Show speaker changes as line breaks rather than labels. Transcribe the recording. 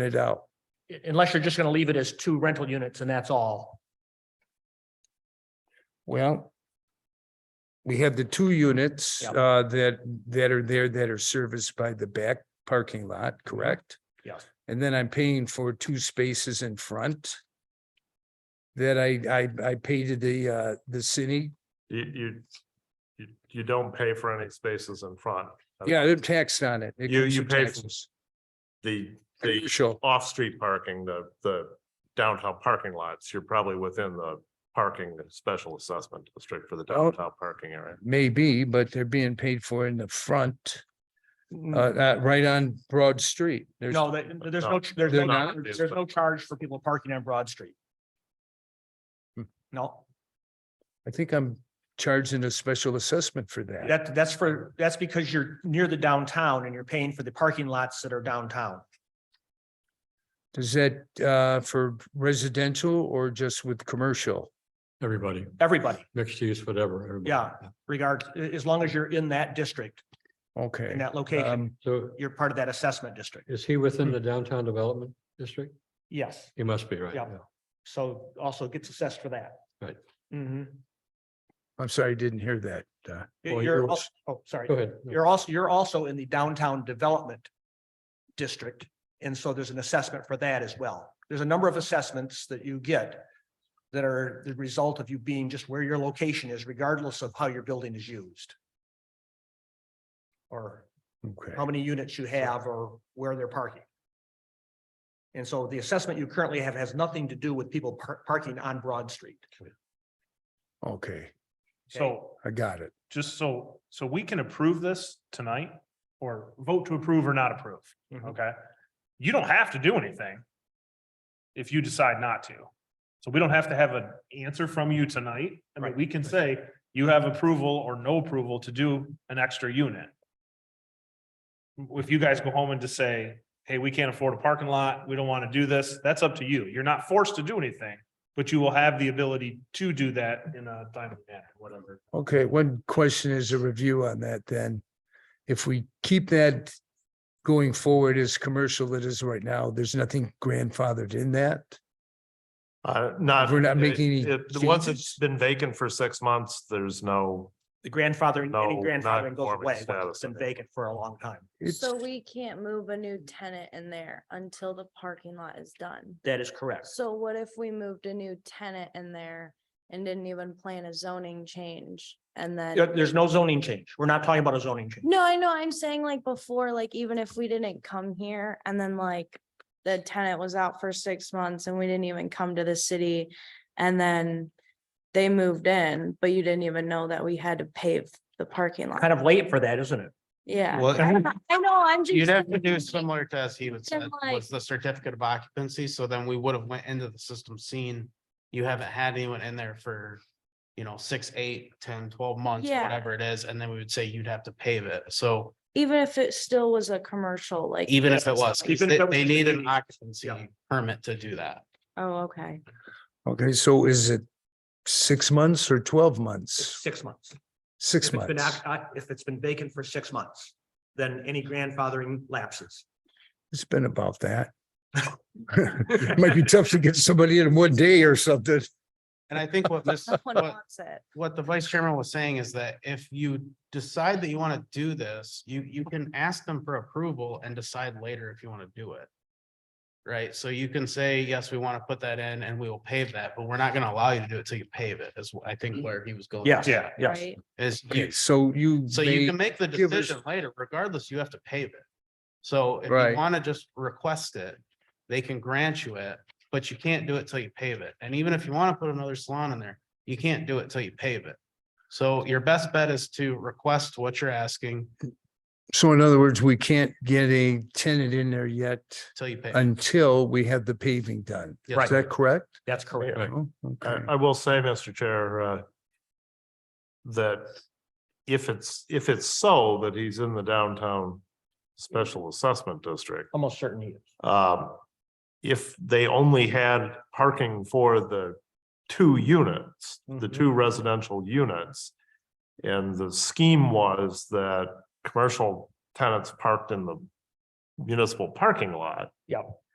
it out.
unless you're just gonna leave it as two rental units and that's all.
Well, we have the two units
Yeah.
uh, that, that are there that are serviced by the back parking lot,
Mm-hmm.
correct?
Yes.
And then I'm paying for two spaces in front that I, I, I pay to the, uh, the city.
You, you, you, you don't pay for any spaces in front.
Yeah, they're taxed on it. It
You-
comes
you
with
pay for-
taxes.
The, the
Commercial,
off-street parking, the, the downtown parking lots, you're probably within the parking special assessment district for the
Well-
downtown parking area.
maybe, but they're being paid for in the front, uh,
No,
uh, right on Broad Street. There's,
that- there's no, there's
They're
no,
not?
there's no charge for people parking on Broad Street.
Hmm.
No,
I think I'm charging a special assessment for that.
that, that's for, that's because you're near the downtown and you're paying for the parking lots that are downtown.
Does that uh for residential or just with commercial?
Everybody,
Everybody,
mixed use, whatever. everybody.
Yeah. regard, as long as you're in that district, in
Okay.
that location,
um,
So
you're part of that assessment district.
is he within the downtown development district?
Yes,
He must be, right?
Yeah. so also gets assessed for that.
Right.
Mhm.
I'm sorry, I didn't hear that. uh,
You're,
Well, you're-
als- oh, sorry.
Go ahead.
You're also, you're also in the downtown development district. And so there's an assessment for that as well. There's a number of assessments that you get that are the result of you being just where your location is regardless of how your building is used. Or
Okay,
how many units you have or where they're parking. And so the assessment you currently have has nothing to do with people par- parking on Broad Street. Oh.
okay,
So
I got it.
just so, so we can approve this tonight or vote to approve or not approve,
Mhm.
okay? You don't have to do anything if you decide not to. So we don't have to have an answer from you tonight. I mean, we can say you have approval or no approval to do an extra unit. If you guys go home and just say, hey, we can't afford a parking lot, we don't want to do this, that's up to you. You're not forced to do anything, but you will have the ability to do that in a timely manner, whatever.
Okay, one question is a review on that then. If we keep that going forward as commercial it is right now, there's nothing grandfathered in that?
Uh, not.
We're not making any
it- it- Once
changes?
it's been vacant for six months, there's no,
The grandfathering, any
No,
grandfathering goes
non-conforming
away once it's
status.
been vacant for a long time.
It's,
So we can't move a new tenant in there until the parking lot is done.
That is correct.
So what if we moved a new tenant in there and didn't even plan a zoning change and
There-
then?
There's no zoning change. We're not talking about a zoning change.
No, I know, I'm saying like before, like even if we didn't come here and then like the tenant was out for six months and we didn't even come to the city and then they moved in, but you didn't even know that we had to pave the parking lot.
Kind of late for that, isn't it?
Yeah,
Well,
I know, I'm just.
you'd have to do
saying,
similar to as he would
Then,
said,
like-
was the certificate of occupancy, so then we would have went into the system seen. You haven't had anyone in there for, you know, six, eight, ten, twelve months,
Yeah.
whatever it is, and then we would say you'd have to pave it, so
Even if it still was a commercial, like.
even if it was, 'cause
Even if
they,
it was
they
just
need an
maybe- yeah.
occupancy permit to do that.
Oh, okay.
okay, so is it six months or twelve
It's
months?
six months.
Six
If it's been
months.
oc- oc- If it's been vacant for six months, then any grandfathering lapses.
It's been about that. Might be tough to get somebody in one day or something.
And I think what this,
No one
what
wants it.
what the vice chairman was saying is that if you decide that you want to do this, you, you can ask them for approval and decide later if you want to do it. Right? So you can say, yes, we want to put that in and we will pave that, but we're not going to allow you to do it till you pave it is what I think where he was going.
yeah,
Right?
Is
Okay,
you,
so you.
so you
may-
can make the
give us-
decision later, regardless, you have to pave it. So if
Right.
you want to just request it, they can grant you it, but you can't do it till you pave it. And even if you want to put another salon in there, you can't do it till you pave it. So your best bet is to request what you're asking
So in other words, we can't get a tenant in there yet
till you pay.
until we have the paving done. Is
Right.
that correct?
That's correct.
Right.
Oh,
I,
Okay.
I will say, Mr. Chair, uh, that if it's, if it's so that he's in the downtown special assessment district,
Almost certainly.
um, if they only had parking for the two units, the
Mhm.
two residential units. And the scheme was that commercial tenants parked in the municipal parking lot.
Yep.